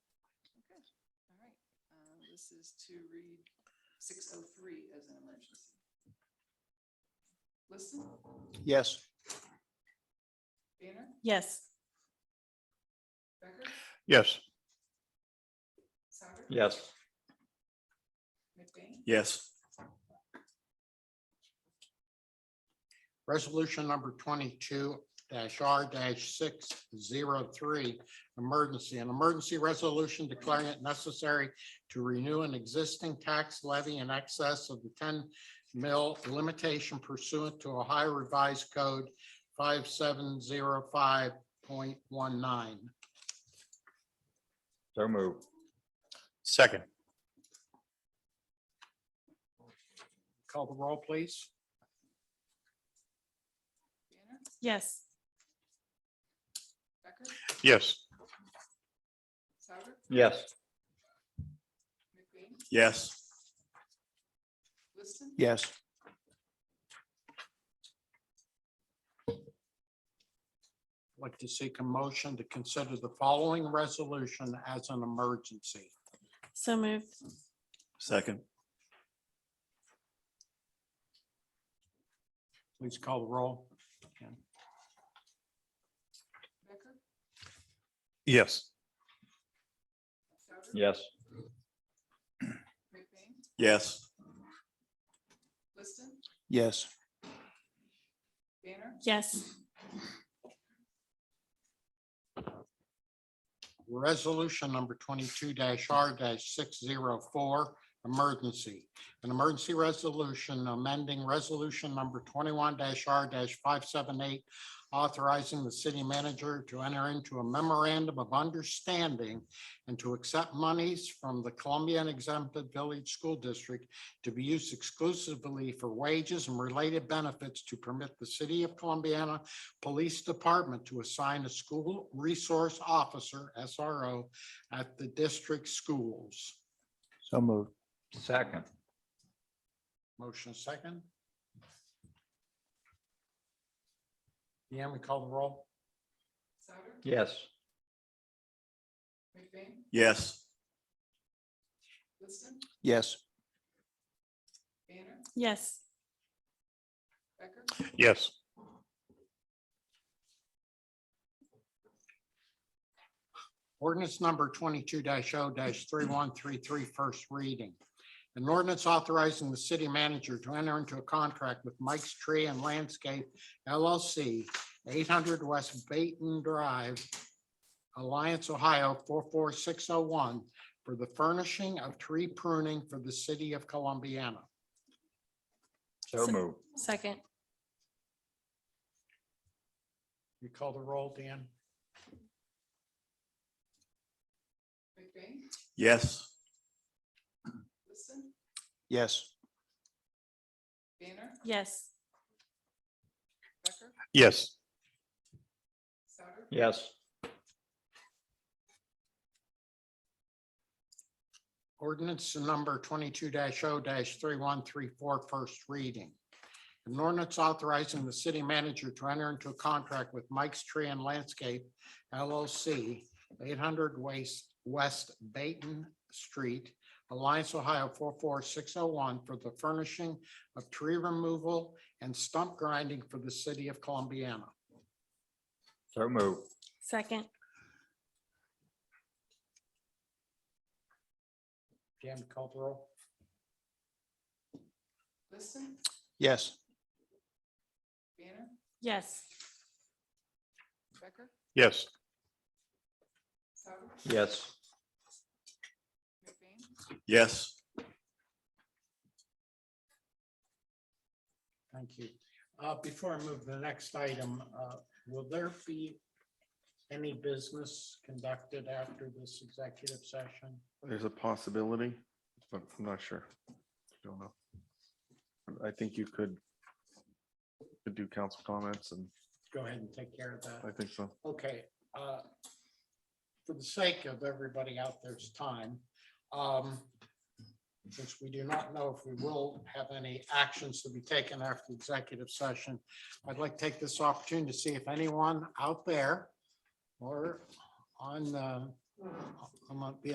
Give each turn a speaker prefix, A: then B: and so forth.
A: Services um, to read six oh three as an emergency. Listen,
B: Yes.
A: Banner,
C: Yes.
A: Becker,
B: Yes.
A: Souter,
B: Yes.
A: McBain,
B: Yes. Resolution number twenty-two R six zero three, emergency. An emergency resolution declaring it necessary to renew an existing tax levy in excess of the ten mil limitation pursuant to Ohio Revised Code five seven zero five point one nine.
D: So moved.
E: Second,
B: Call the roll, please.
A: Banner,
C: Yes.
A: Becker,
E: yes.
A: Souter,
D: Yes.
A: McBain,
E: Yes.
A: Liston,
B: Yes. Like to seek a motion to consider the following resolution as an emergency.
C: So moved.
E: Second,
B: Please call the roll.
A: Becker,
E: yes.
A: Souter,
D: Yes.
A: McBain,
E: Yes.
A: Liston,
B: Yes.
A: Banner,
C: Yes.
B: Resolution number twenty-two R six zero four, emergency. An emergency resolution amending resolution number twenty-one R five seven eight, authorizing the city manager to enter into a memorandum of understanding and to accept monies from the Columbian exempted village school district to be used exclusively for wages and related benefits to permit the city of Columbiana Police Department to assign a school resource officer, SRO, at the district schools.
D: So moved. Second.
B: Motion second. Deanne, we call the roll?
A: Souter,
D: Yes.
A: McBain,
E: Yes.
A: Liston,
B: Yes.
A: Banner,
C: Yes.
A: Becker,
E: Yes.
B: Ordinance number twenty-two 0 three one three three, first reading. An ordinance authorizing the city manager to enter into a contract with Mike's Tree and Landscape LLC, eight hundred West Baton Drive, Alliance, Ohio, four four six oh one, for the furnishing of tree pruning for the city of Columbiana.
D: So
C: So-
D: moved.
C: Second.
B: You call the roll, Dan?
A: McBain,
E: Yes.
A: Liston,
B: Yes.
A: Banner,
C: Yes.
A: Becker,
E: Yes.
A: Souter,
D: Yes.
B: Ordinance number twenty-two 0 three one three four, first reading. An ordinance authorizing the city manager to enter into a contract with Mike's Tree and Landscape LLC, eight hundred West, West Baton Street, Alliance, Ohio, four four six oh one, for the furnishing of tree removal and stump grinding for the city of Columbiana.
D: So moved.
C: Second.
B: Dan, call the roll.
A: Liston,
B: Yes.
A: Banner,
C: Yes.
A: Becker,
E: Yes.
A: Souter,
D: Yes.
A: McBain,
E: Yes.
B: Thank you. Uh, Before I move to the next item, uh, will there be any business conducted after this executive session?
F: There's a possibility, but I'm not sure. Don't know. I think you could could do council comments and
B: Go ahead and take care of that.
F: I think so.
B: Okay. uh, For the sake of everybody out there's time, um, since we do not know if we will have any actions to be taken after executive session, I'd like to take this opportunity to see if anyone out there or on, uh, on um, the